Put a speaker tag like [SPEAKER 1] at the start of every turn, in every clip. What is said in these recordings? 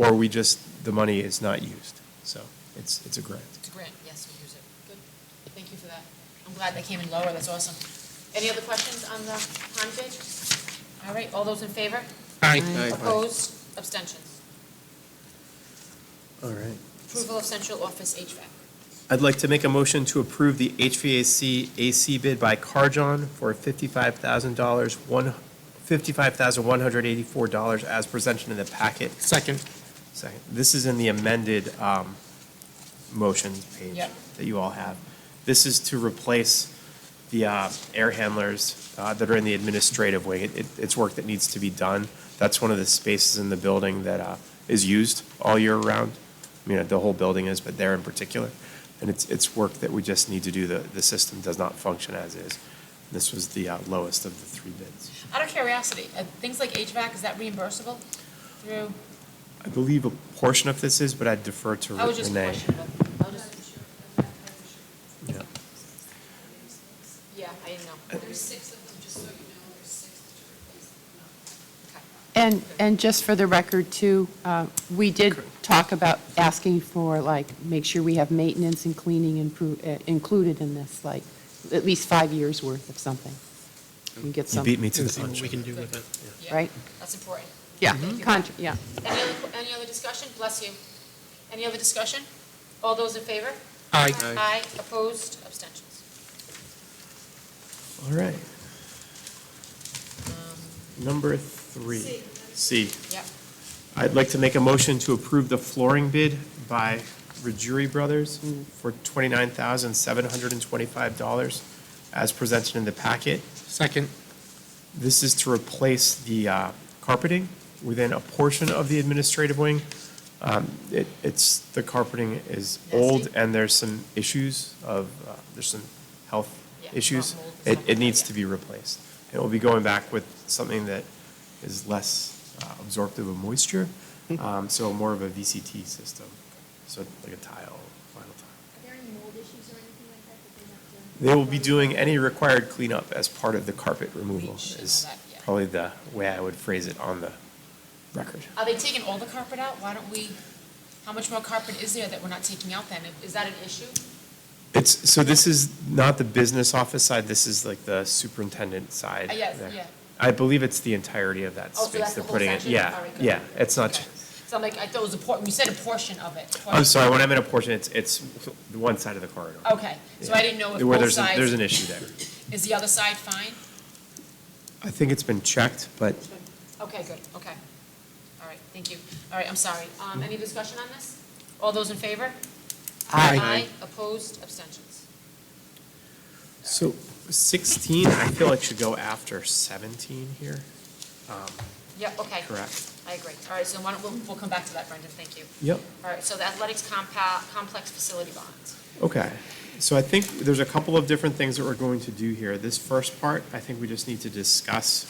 [SPEAKER 1] or we just, the money is not used. So it's, it's a grant.
[SPEAKER 2] It's a grant, yes, we use it. Good, thank you for that. I'm glad they came in lower, that's awesome. Any other questions on the pond bid? All right, all those in favor?
[SPEAKER 3] Aye.
[SPEAKER 2] Opposed, abstentions.
[SPEAKER 1] All right.
[SPEAKER 2] Approval of central office HVAC.
[SPEAKER 1] I'd like to make a motion to approve the HVAC AC bid by Carjon for $55,000, one, $55,184 as presented in the packet.
[SPEAKER 3] Second.
[SPEAKER 1] Second, this is in the amended um, motion page
[SPEAKER 2] Yep.
[SPEAKER 1] that you all have. This is to replace the uh, air handlers uh, that are in the administrative wing. It- it- It's work that needs to be done. That's one of the spaces in the building that uh, is used all year round. I mean, the whole building is, but there in particular. And it's, it's work that we just need to do. The, the system does not function as is. This was the uh, lowest of the three bids.
[SPEAKER 2] Out of curiosity, uh, things like HVAC, is that reimbursable through,
[SPEAKER 1] I believe a portion of this is, but I defer to Renee.
[SPEAKER 2] I was just questioning, but, I'll just-
[SPEAKER 1] Yeah.
[SPEAKER 2] yeah, I didn't know.
[SPEAKER 4] There's six of them, just so you know, there's six to replace them.
[SPEAKER 5] And, and just for the record, too, uh, we did talk about asking for, like, make sure we have maintenance and cleaning impro- uh, included in this, like, at least five years' worth of something. We get
[SPEAKER 1] You
[SPEAKER 5] some,
[SPEAKER 1] beat me to the
[SPEAKER 3] See what
[SPEAKER 1] punch.
[SPEAKER 3] we can do with it.
[SPEAKER 2] Yeah,
[SPEAKER 5] Right.
[SPEAKER 2] That's important.
[SPEAKER 5] yeah,
[SPEAKER 2] Thank you.
[SPEAKER 5] contra- yeah.
[SPEAKER 2] Any other, any other discussion? Bless you. Any other discussion? All those in favor?
[SPEAKER 3] Aye.
[SPEAKER 2] Aye, opposed, abstentions.
[SPEAKER 1] All right. Number three. C.
[SPEAKER 2] Yep.
[SPEAKER 1] I'd like to make a motion to approve the flooring bid by Rajuri Brothers for $29,725 as presented in the packet.
[SPEAKER 3] Second.
[SPEAKER 1] This is to replace the uh, carpeting within a portion of the administrative wing. Um, it- It's, the carpeting is old,
[SPEAKER 2] Nasty.
[SPEAKER 1] and there's some issues of, uh, there's some health
[SPEAKER 2] Yeah,
[SPEAKER 1] issues.
[SPEAKER 2] mold
[SPEAKER 1] It,
[SPEAKER 2] and stuff like
[SPEAKER 1] it
[SPEAKER 2] that,
[SPEAKER 1] needs
[SPEAKER 2] yeah.
[SPEAKER 1] to be replaced. It will be going back with something that is less uh, absorptive of moisture,
[SPEAKER 2] Hmm.
[SPEAKER 1] um, so more of a VCT system, so like a tile, vinyl tile.
[SPEAKER 6] Are there any mold issues or anything like that that they have to?
[SPEAKER 1] They will be doing any required cleanup as part of the carpet removal
[SPEAKER 2] Bleach and
[SPEAKER 1] is
[SPEAKER 2] all that, yeah.
[SPEAKER 1] probably the way I would phrase it on the record.
[SPEAKER 2] Are they taking all the carpet out? Why don't we, how much more carpet is there that we're not taking out then? Is that an issue?
[SPEAKER 1] It's, so this is not the business office side, this is like the superintendent side.
[SPEAKER 2] Uh, yes,
[SPEAKER 1] there.
[SPEAKER 2] yeah.
[SPEAKER 1] I believe it's the entirety of that
[SPEAKER 2] Oh, so
[SPEAKER 1] space
[SPEAKER 2] that's the
[SPEAKER 1] they're
[SPEAKER 2] whole
[SPEAKER 1] putting it.
[SPEAKER 2] section? All right, good.
[SPEAKER 1] Yeah, yeah, it's not,
[SPEAKER 2] Okay. So I'm like, I thought it was a portion, you said a portion of it.
[SPEAKER 1] I'm
[SPEAKER 2] portion.
[SPEAKER 1] sorry, when I meant a portion, it's, it's the one side of the corridor.
[SPEAKER 2] Okay, Oh, so I didn't know if
[SPEAKER 1] Where
[SPEAKER 2] both
[SPEAKER 1] there's a- There's an
[SPEAKER 2] sides,
[SPEAKER 1] issue there.
[SPEAKER 2] is the other side fine?
[SPEAKER 1] I think it's been checked, but
[SPEAKER 2] Okay, good, okay. All right, thank you. All right, I'm sorry. Um, any discussion on this? All those in favor?
[SPEAKER 3] Aye.
[SPEAKER 2] Aye, opposed, abstentions.
[SPEAKER 1] So 16, I feel like should go after 17 here, Um,
[SPEAKER 2] Yep, okay.
[SPEAKER 1] correct?
[SPEAKER 2] I agree. All right, so why don't, we'll, we'll come back to that, Brendan, thank you.
[SPEAKER 1] Yep.
[SPEAKER 2] All right, so the athletics compa, complex facility bonds.
[SPEAKER 1] Okay, so I think there's a couple of different things that we're going to do here. This first part, I think we just need to discuss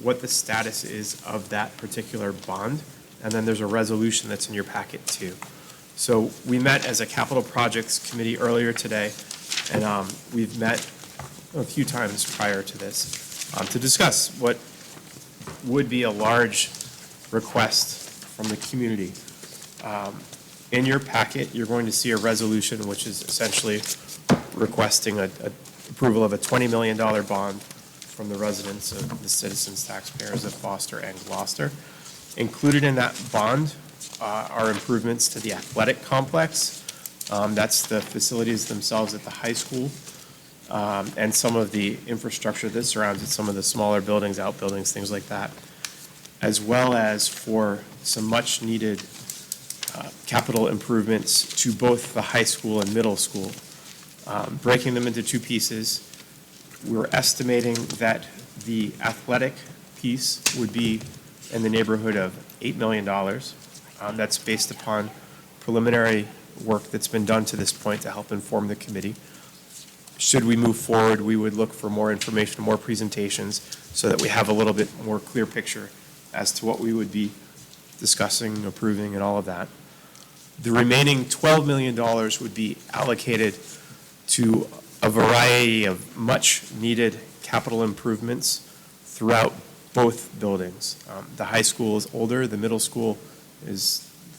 [SPEAKER 1] what the status is of that particular bond, and then there's a resolution that's in your packet too. So we met as a capital projects committee earlier today, and um, we've met a few times prior to this um, to discuss what would be a large request from the community. In your packet, you're going to see a resolution which is essentially requesting a, a approval of a twenty million dollar bond from the residents of the citizens taxpayers of Foster and Gloucester. Included in that bond uh, are improvements to the athletic complex. Um, that's the facilities themselves at the high school, um, and some of the infrastructure that surrounds it, some of the smaller buildings, outbuildings, things like that. As well as for some much-needed capital improvements to both the high school and middle school, um, breaking them into two pieces. We're estimating that the athletic piece would be in the neighborhood of $8 million. Um, That's based upon preliminary work that's been done to this point to help inform the committee. Should we move forward, we would look for more information, more presentations, so that we have a little bit more clear picture as to what we would be discussing, approving, and all of that. The remaining $12 million would be allocated to a variety of much-needed capital improvements throughout both buildings. Um, The high school is older, the middle school is